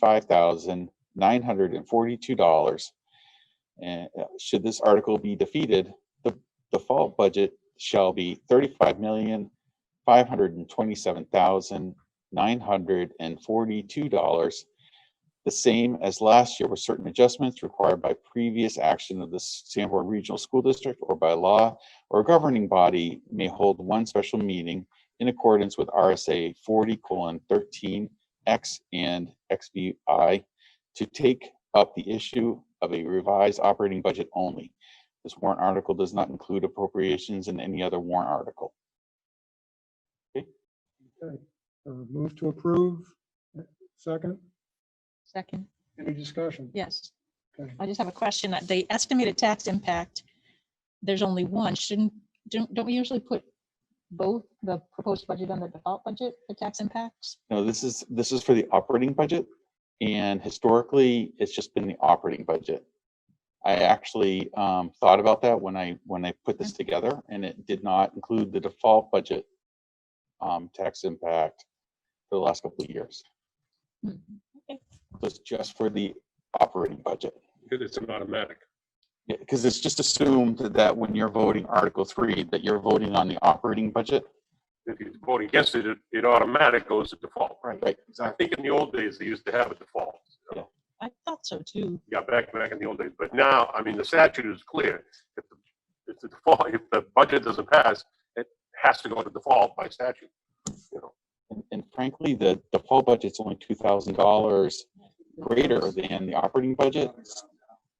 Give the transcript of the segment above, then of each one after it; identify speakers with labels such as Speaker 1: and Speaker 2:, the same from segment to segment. Speaker 1: five thousand nine hundred and forty-two dollars. And uh, should this article be defeated, the default budget shall be thirty-five million five hundred and twenty-seven thousand nine hundred and forty-two dollars, the same as last year with certain adjustments required by previous action of the Sanborn Regional School District or by law or governing body may hold one special meeting in accordance with RSA forty colon thirteen X and XVI to take up the issue of a revised operating budget only. This warrant article does not include appropriations in any other warrant article.
Speaker 2: Okay, Uh, move to approve. Second,
Speaker 3: Second,
Speaker 2: any discussion?
Speaker 3: yes.
Speaker 2: Okay.
Speaker 3: I just have a question. Uh, The estimated tax impact, there's only one. Shouldn't, don't, don't we usually put both the proposed budget and the default budget for tax impacts?
Speaker 1: No, this is, this is for the operating budget. And historically, it's just been the operating budget. I actually um, thought about that when I, when I put this together and it did not include the default budget um, tax impact for the last couple of years.
Speaker 3: Hmm, okay.
Speaker 1: So It's just for the operating budget.
Speaker 4: Because it's an automatic.
Speaker 1: Yeah, because it's just assumed that when you're voting Article Three, that you're voting on the operating budget.
Speaker 4: If you vote against it, it- it automatic goes to default.
Speaker 1: Right,
Speaker 4: I think in the old days, they used to have a default.
Speaker 1: Yeah.
Speaker 3: I thought so too.
Speaker 4: Yeah, back, back in the old days. But now, I mean, the statute is clear. If the, if the default, if the budget doesn't pass, it has to go to default by statute. You know,
Speaker 1: And- And frankly, the default budget's only two thousand dollars greater than the operating budget.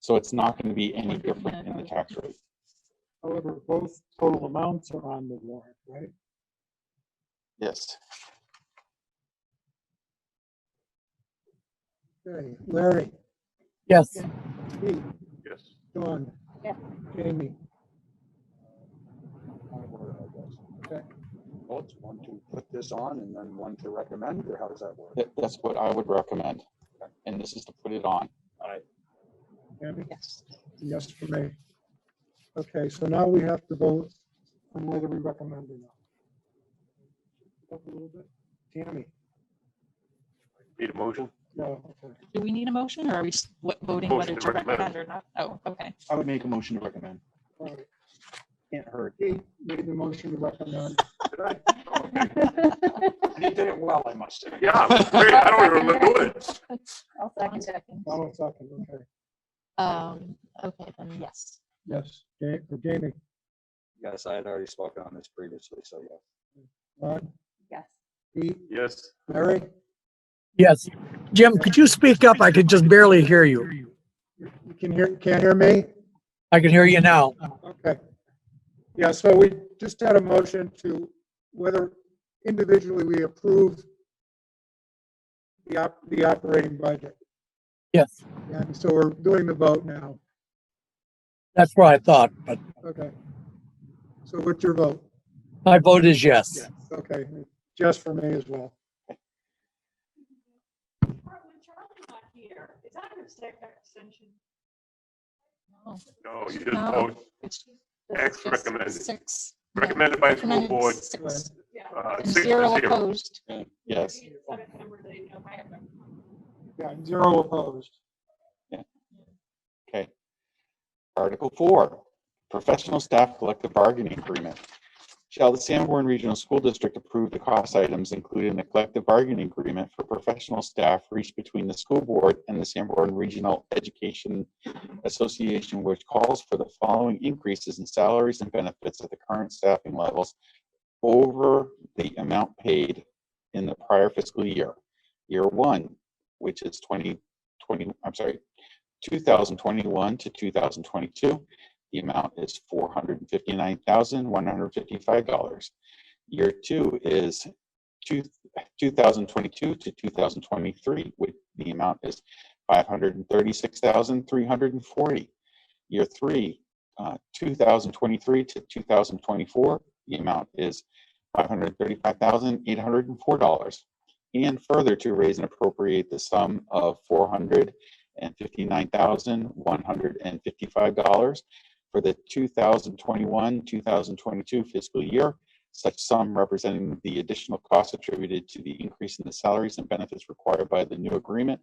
Speaker 1: So it's not going to be any different in the tax rate.
Speaker 2: However, both total amounts are on the warrant, right?
Speaker 1: Yes.
Speaker 2: Okay, Larry,
Speaker 5: Yes,
Speaker 2: Pete,
Speaker 4: yes.
Speaker 2: Dawn.
Speaker 3: Yeah.
Speaker 2: Jamie,
Speaker 6: my word, I guess. Okay. Well, it's one to put this on and then one to recommend, or how does that work?
Speaker 1: That, that's what I would recommend. And this is to put it on.
Speaker 2: Tammy,
Speaker 3: Yes.
Speaker 2: yes for me. Okay, so now we have to vote on whether we recommend or not. Up a little bit. Tammy,
Speaker 4: Need a motion?
Speaker 2: no, okay.
Speaker 3: Do we need a motion or are we s- what- voting
Speaker 4: Motion
Speaker 3: whether
Speaker 4: to
Speaker 3: to
Speaker 4: recommend.
Speaker 3: recommend or not? Oh, okay.
Speaker 6: I would make a motion to recommend.
Speaker 2: all right.
Speaker 6: Can't hurt.
Speaker 2: Pete made the motion to recommend.
Speaker 4: Did I?
Speaker 6: You did it well, I must say.
Speaker 4: Yeah, it was great. I don't even remember doing it.
Speaker 3: I'll second.
Speaker 2: Donald second, okay.
Speaker 3: Um, okay, then yes.
Speaker 2: Yes. Ja- Jamie,
Speaker 6: Yes, I had already spoken on this previously, so yeah.
Speaker 2: Dawn,
Speaker 3: Yes.
Speaker 2: Pete,
Speaker 4: Yes,
Speaker 2: Larry?
Speaker 5: yes. Jim, could you speak up? I could just barely hear you.
Speaker 2: You can hear, can't hear me?
Speaker 5: I can hear you now.
Speaker 2: Okay. Yeah, so we just had a motion to whether individually we approve the op, the operating budget.
Speaker 5: Yes,
Speaker 2: And so we're doing the vote now.
Speaker 5: that's what I thought, but
Speaker 2: Okay. So what's your vote?
Speaker 5: my vote is yes.
Speaker 2: Okay, just for me as well.
Speaker 7: When Charlie's not here, is that a sec- extension?
Speaker 3: No,
Speaker 4: no, you just
Speaker 3: No.
Speaker 4: vote
Speaker 3: Oh, it's-
Speaker 4: X
Speaker 3: it's
Speaker 4: recommended.
Speaker 3: Six. yeah,
Speaker 4: recommended by the school
Speaker 3: recommended
Speaker 4: board,
Speaker 3: six,
Speaker 7: Yeah.
Speaker 4: uh,
Speaker 3: and
Speaker 4: six to
Speaker 3: Zero
Speaker 4: zero.
Speaker 3: opposed.
Speaker 1: Yes.
Speaker 7: Is that a number that you know, I have no-
Speaker 2: Yeah, zero opposed.
Speaker 1: Okay. Article four, professional staff collective bargaining agreement. Shall the Sanborn Regional School District approve the cost items included in the collective bargaining agreement for professional staff reached between the school board and the Sanborn Regional Education Association, which calls for the following increases in salaries and benefits at the current staffing levels over the amount paid in the prior fiscal year. Year one, which is twenty twenty, I'm sorry, 2021 to 2022. The amount is $459,155. Year two is two- 2022 to 2023, with the amount is 536,340. Year three, uh, 2023 to 2024, the amount is $535,804. And further to raise and appropriate the sum of 400 and fifty-nine thousand, one hundred and fifty-five dollars for the two thousand twenty-one, two thousand twenty-two fiscal year such sum representing the additional costs attributed to the increase in the salaries and benefits required by the new agreement